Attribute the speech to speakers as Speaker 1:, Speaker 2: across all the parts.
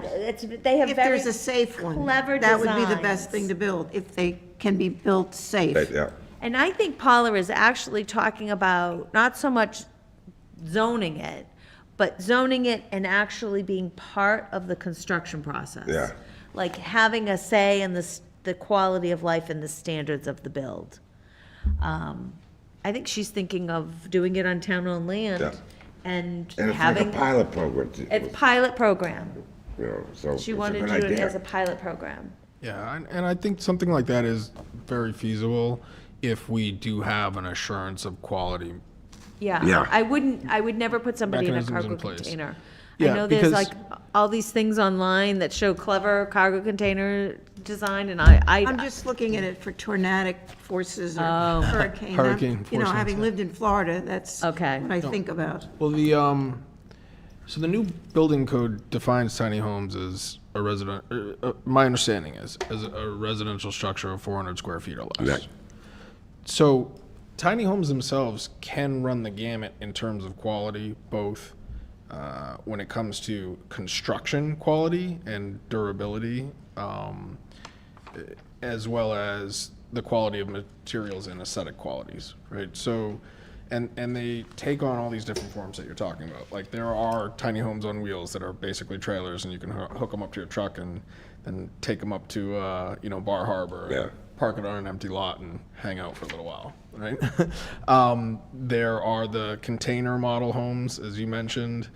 Speaker 1: it's, they have
Speaker 2: If
Speaker 1: very
Speaker 2: there's a safe one.
Speaker 1: clever
Speaker 2: That would be the best
Speaker 1: designs.
Speaker 2: thing to build, if they can be built
Speaker 3: Right,
Speaker 2: safe.
Speaker 3: yeah.
Speaker 1: And I think Paula is actually talking about not so much zoning it, but zoning it and actually being part of the construction process.
Speaker 3: Yeah.
Speaker 1: Like having a say in the, s- the quality of life and the standards of the build. Um, I think she's thinking of doing it on town-owned
Speaker 3: Yeah.
Speaker 1: land and
Speaker 3: And it's like a
Speaker 1: having,
Speaker 3: pilot program, to-
Speaker 1: it's pilot program.
Speaker 3: you know, so. it's
Speaker 1: She
Speaker 3: a
Speaker 1: wanted
Speaker 3: good
Speaker 1: to do it
Speaker 3: idea.
Speaker 1: as a pilot program.
Speaker 4: Yeah, and, and I think something like that is very feasible if we do have an assurance of quality.
Speaker 1: Yeah.
Speaker 3: Yeah.
Speaker 1: I wouldn't, I would never put somebody in a
Speaker 4: Mechanisms in
Speaker 1: cargo
Speaker 4: place.
Speaker 1: container. I
Speaker 4: Yeah,
Speaker 1: know there's
Speaker 4: because-
Speaker 1: like all these things online that show clever cargo container design and I,
Speaker 2: I'm
Speaker 1: I,
Speaker 2: just looking at it for tornadic forces or
Speaker 1: Oh.
Speaker 2: hurricane. I'm-
Speaker 4: Hurricane
Speaker 2: You know,
Speaker 4: forces,
Speaker 2: having
Speaker 4: yeah.
Speaker 2: lived in Florida, that's what
Speaker 1: Okay.
Speaker 2: I think about.
Speaker 4: Well, the um, so the new building code defines tiny homes as a resident. Uh, uh, my understanding is as a residential structure of 400 square feet or less.
Speaker 3: Yeah.
Speaker 4: So, tiny homes themselves can run the gamut in terms of quality, both uh, when it comes to construction quality and durability, um, as well as the quality of materials and aesthetic qualities, right? So, and and they take on all these different forms that you're talking about. Like there are tiny homes on wheels that are basically trailers, and you can hoo- hook them up to your truck and then take them up to uh, you know Bar Harbor. and
Speaker 3: Yeah.
Speaker 4: Park it on an empty lot and hang out for a little while, right? um, there are the container model homes, as you mentioned.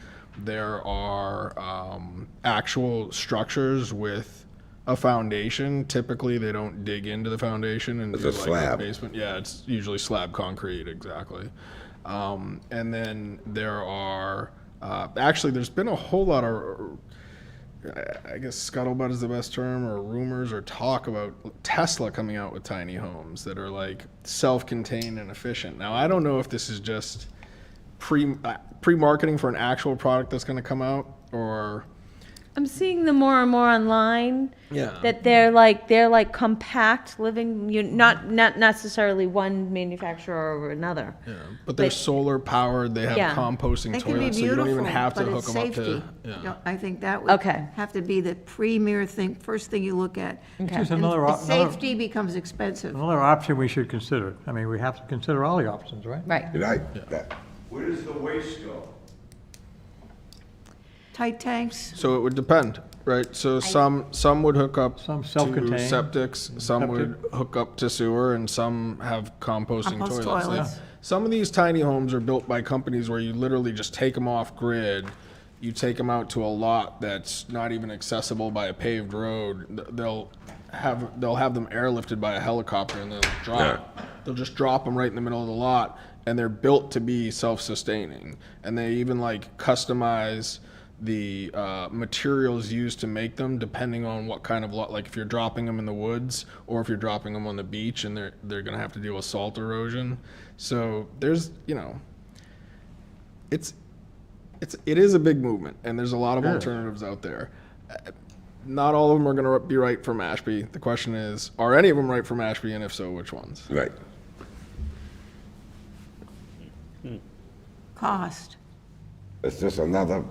Speaker 4: There are um, actual structures with a foundation. Typically, they don't dig into the foundation and
Speaker 3: It's
Speaker 4: do
Speaker 3: a slab.
Speaker 4: basement. Yeah, it's usually slab concrete, exactly. Um, and then there are uh, actually there's been a whole lot of I- I guess scuttlebutt is the best term, or rumors or talk about Tesla coming out with tiny homes that are like self-contained and efficient. Now I don't know if this is just pre uh, pre-marketing for an actual product that's going to come out, or
Speaker 1: I'm seeing them more and more online.
Speaker 4: Yeah.
Speaker 1: That they're like, they're like compact living, you, not, not necessarily one manufacturer over another.
Speaker 4: but they're
Speaker 1: But-
Speaker 4: solar powered. They have
Speaker 1: Yeah.
Speaker 4: composting
Speaker 2: They can be
Speaker 4: toilets, so you don't
Speaker 2: beautiful,
Speaker 4: even have to
Speaker 2: but
Speaker 4: hook
Speaker 2: it's
Speaker 4: them up to.
Speaker 2: safety.
Speaker 4: Yeah.
Speaker 2: No, I think that would
Speaker 1: Okay.
Speaker 2: have to be the premier thing, first thing you look at.
Speaker 1: Okay.
Speaker 5: Just
Speaker 2: And
Speaker 5: another, op- another,
Speaker 2: Safety becomes expensive.
Speaker 5: another option we should consider. I mean, we have to consider all the options, right?
Speaker 1: Right.
Speaker 3: Did I- that-
Speaker 6: Where does the waste go?
Speaker 2: Tight tanks,
Speaker 4: So it would depend, right? So some some would hook up
Speaker 5: Some
Speaker 4: to
Speaker 5: self-contained.
Speaker 4: septics, some would hook up to sewer, and some have composting
Speaker 2: Compost
Speaker 4: toilets. Like,
Speaker 2: toilets.
Speaker 4: Some of these tiny homes are built by companies where you literally just take them off grid. You take them out to a lot that's not even accessible by a paved road. Th- They'll have they'll have them airlifted by a helicopter and they'll drop. They'll just drop them right in the middle of the lot, and they're built to be self-sustaining. And they even like customize the uh, materials used to make them depending on what kind of lot like if you're dropping them in the woods or if you're dropping them on the beach and they're they're gonna have to deal with salt erosion so there's you know it's it's it is a big movement and there's a lot of alternatives out there Uh, not all of them are gonna be right for Mashpee the question is are any of them right for Mashpee and if so which ones
Speaker 3: Right.
Speaker 2: cost.
Speaker 3: It's just another,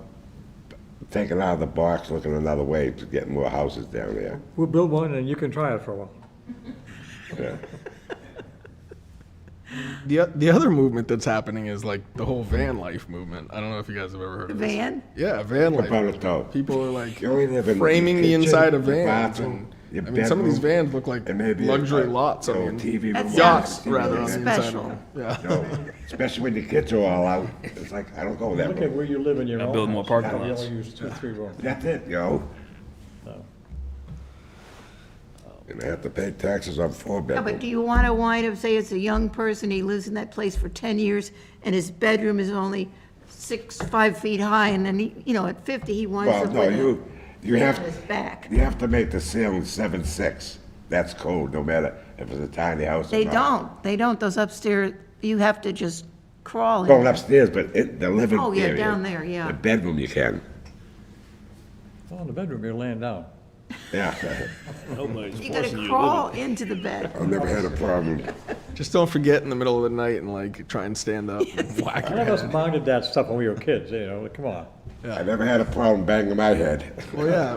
Speaker 3: taking out of the box, looking another way to get more houses down there.
Speaker 5: We'll build one and you can try it for a while.
Speaker 3: Yeah.
Speaker 4: the o- the other movement that's happening is like the whole van life movement I don't know if you guys have ever heard of this.
Speaker 2: Van,
Speaker 4: yeah van life
Speaker 3: About it though.
Speaker 4: People are like
Speaker 3: You only live in
Speaker 4: framing the
Speaker 3: your kitchen,
Speaker 4: inside of
Speaker 3: your
Speaker 4: vans.
Speaker 3: bathroom,
Speaker 4: And,
Speaker 3: your
Speaker 4: I mean, some of these
Speaker 3: bedroom,
Speaker 4: vans look like
Speaker 3: and maybe a-
Speaker 4: luxury
Speaker 3: a
Speaker 4: lots. I
Speaker 3: little
Speaker 4: mean,
Speaker 3: TV
Speaker 2: That
Speaker 3: remote.
Speaker 4: yachts
Speaker 2: Yeah.
Speaker 4: rather on the inside
Speaker 2: Special.
Speaker 4: of them. Yeah.
Speaker 3: You know, Especially when the kids are all out. It's like, I don't go that
Speaker 5: Look at
Speaker 3: way.
Speaker 5: where you live in your own house.
Speaker 7: build more parking
Speaker 5: You
Speaker 7: lots.
Speaker 5: only use two, three rooms.
Speaker 3: That's it, yo. And I have to pay taxes on four
Speaker 2: Yeah, but
Speaker 3: bedrooms.
Speaker 2: do you want to wind up, say it's a young person, he lives in that place for 10 years, and his bedroom is only six, five feet high, and then, he, you know, at 50, he winds
Speaker 3: Well,
Speaker 2: up
Speaker 3: no,
Speaker 2: with it
Speaker 3: you, you
Speaker 2: on
Speaker 3: have,
Speaker 2: his back.
Speaker 3: you have to make the ceiling seven, six. That's code, no matter if it's a tiny house or
Speaker 2: They
Speaker 3: not.
Speaker 2: don't, they don't, those upstairs, you have to just crawl in.
Speaker 3: Going upstairs, but it, the living
Speaker 2: Oh, yeah,
Speaker 3: area,
Speaker 2: down there, yeah.
Speaker 3: The bedroom you can,
Speaker 5: Well, in the bedroom, you're laying down.
Speaker 3: yeah.
Speaker 2: You gotta crawl into the bed.
Speaker 3: I've never had a problem.
Speaker 4: Just don't forget in the middle of the night and like try and stand up and whack your
Speaker 5: None of
Speaker 4: head.
Speaker 5: us minded that stuff when we were kids, you know, come on.
Speaker 3: I never had a problem banging my head.
Speaker 4: Well, yeah,